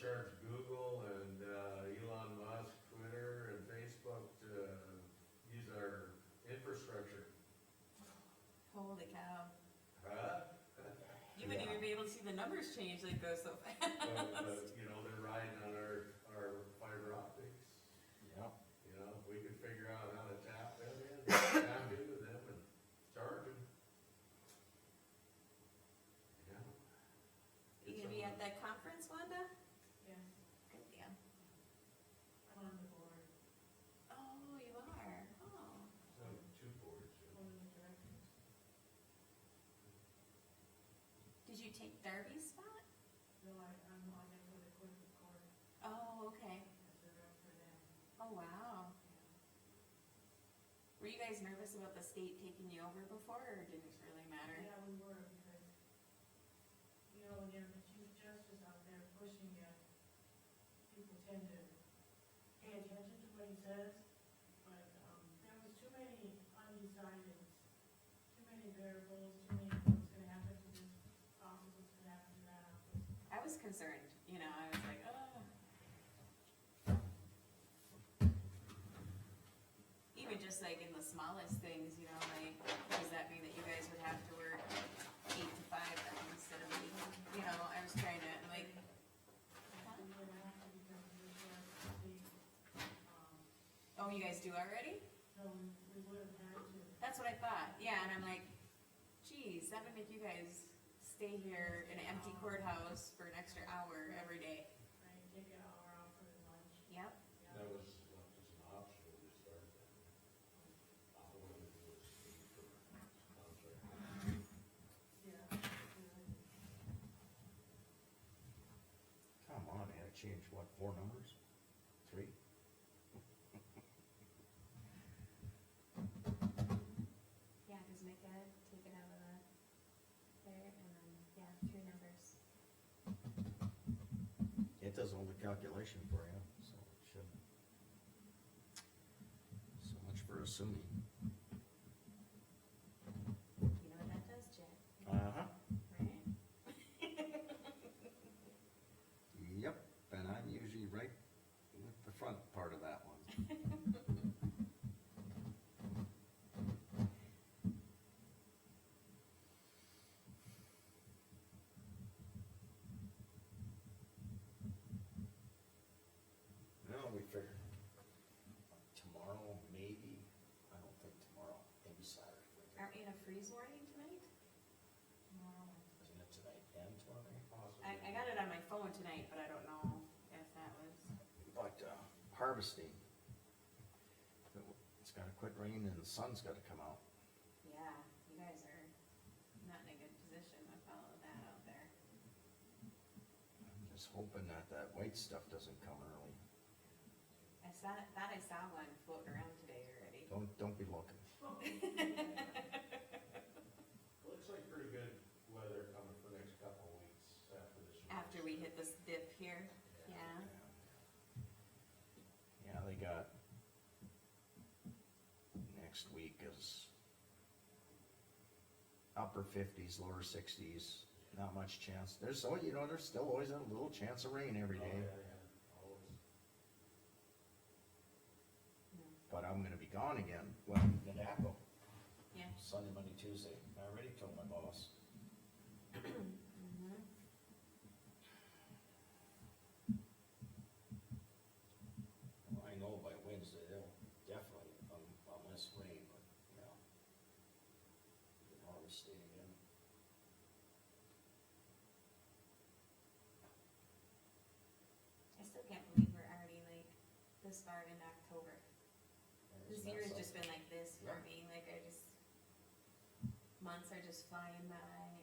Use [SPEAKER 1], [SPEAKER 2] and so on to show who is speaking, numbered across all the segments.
[SPEAKER 1] charge Google and, uh, Elon Musk, Twitter and Facebook to use our infrastructure,
[SPEAKER 2] Holy cow.
[SPEAKER 1] huh?
[SPEAKER 2] You wouldn't
[SPEAKER 3] Yeah.
[SPEAKER 2] even be able to see the numbers change, they go so fast.
[SPEAKER 1] But, but, you know, they're riding on our, our fiber optics,
[SPEAKER 3] Yeah,
[SPEAKER 1] you know, if we could figure out how to tap them in, tap into them and charge them. Yeah.
[SPEAKER 2] You gonna be at that conference, Wanda?
[SPEAKER 4] Yeah,
[SPEAKER 2] Good deal.
[SPEAKER 4] I'm on the board,
[SPEAKER 2] Oh, you are, oh.
[SPEAKER 1] So, two boards, yeah.
[SPEAKER 4] one of the directors.
[SPEAKER 2] Did you take Darby's spot?
[SPEAKER 4] No, I, I'm on it for the court record
[SPEAKER 2] Oh, okay.
[SPEAKER 4] as a rep for them.
[SPEAKER 2] Oh, wow.
[SPEAKER 4] yeah.
[SPEAKER 2] Were you guys nervous about the state taking you over before, or didn't it really matter?
[SPEAKER 4] Yeah, we were, because, you know, when you're the chief justice out there pushing you, people tend to pay attention to what he says, but, um, there was too many undecideds, too many variables, too many what's gonna happen to this office, what's gonna happen to that office.
[SPEAKER 2] I was concerned, you know, I was like, oh. Even just like in the smallest things, you know, like, does that mean that you guys would have to work eight to five then instead of eight? You know, I was trying to, like,
[SPEAKER 4] And we're gonna have to become the um,
[SPEAKER 2] oh, you guys do already?
[SPEAKER 4] so we, Um, we would have had to,
[SPEAKER 2] That's what I thought, yeah, and I'm like, geez, that would make you guys stay here in an empty courthouse for an extra hour every day.
[SPEAKER 4] right, take an hour off for lunch,
[SPEAKER 2] Yep,
[SPEAKER 4] yeah.
[SPEAKER 1] That was, that was an option to start that. I wanted to do a speed for contract.
[SPEAKER 4] Yeah.
[SPEAKER 3] come on, they had changed what, four numbers? Three?
[SPEAKER 2] yeah, just make that, take it out of the, there, and then, yeah, two numbers.
[SPEAKER 3] It does all the calculation for you, so it should. So much for assuming.
[SPEAKER 2] You know what that does, Jack,
[SPEAKER 3] Uh-huh.
[SPEAKER 2] right?
[SPEAKER 3] Yep, and I'm usually right with the front part of that one. Now we figure tomorrow, maybe, I don't think tomorrow, maybe Saturday. we're there.
[SPEAKER 2] Aren't we in a freeze warning tonight?
[SPEAKER 4] Tomorrow.
[SPEAKER 3] Isn't it tonight and tomorrow?
[SPEAKER 1] Possibly.
[SPEAKER 2] I, I got it on my phone tonight, but I don't know if that was,
[SPEAKER 3] But uh, harvesting, it's gotta quit raining and the sun's gotta come out.
[SPEAKER 2] yeah, you guys are not in a good position with all of that out there.
[SPEAKER 3] I'm just hoping that that white stuff doesn't come early.
[SPEAKER 2] I saw, thought I saw one floating around today already.
[SPEAKER 3] Don't, don't be looking.
[SPEAKER 1] Looks like pretty good weather coming for the next couple of weeks after this.
[SPEAKER 2] After we hit this dip here, yeah,
[SPEAKER 3] Yeah, they got, next week is upper fifties, lower sixties, not much chance. There's, oh, you know, there's still always a little chance of rain every
[SPEAKER 1] Oh,
[SPEAKER 3] day.
[SPEAKER 1] yeah, yeah, always.
[SPEAKER 3] but I'm gonna be gone again. Well, in Napa.
[SPEAKER 2] Yeah.
[SPEAKER 3] Sunday, Monday, Tuesday. I already told my boss.
[SPEAKER 2] Mhm.
[SPEAKER 3] Well, I know by Wednesday, they'll definitely, um, unless rain, but, you know. we can Harvest it again.
[SPEAKER 2] I still can't believe we're already like this far in October.
[SPEAKER 3] And it's
[SPEAKER 2] This
[SPEAKER 3] not
[SPEAKER 2] year has
[SPEAKER 3] so-
[SPEAKER 2] just been like this for
[SPEAKER 3] Yeah.
[SPEAKER 2] me, like I just, months are just flying by and.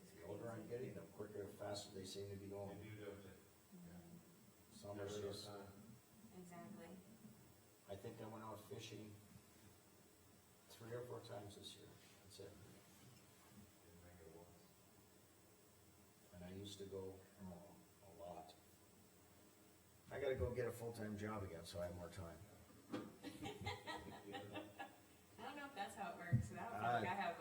[SPEAKER 2] just
[SPEAKER 3] The older I'm
[SPEAKER 2] crazy.
[SPEAKER 3] getting, the quicker, the faster they seem to be
[SPEAKER 1] They
[SPEAKER 3] going.
[SPEAKER 1] do those at
[SPEAKER 2] Mhm.
[SPEAKER 3] Summer's
[SPEAKER 1] every
[SPEAKER 3] just,
[SPEAKER 1] time.
[SPEAKER 2] Exactly.
[SPEAKER 3] I think I went out fishing three or four times this year. That's it.
[SPEAKER 1] Didn't make it once.
[SPEAKER 3] And I used to go, oh, a lot. I gotta go get a full-time job again, so I have more time.
[SPEAKER 2] I don't know if that's how it works, 'cause I don't feel like I have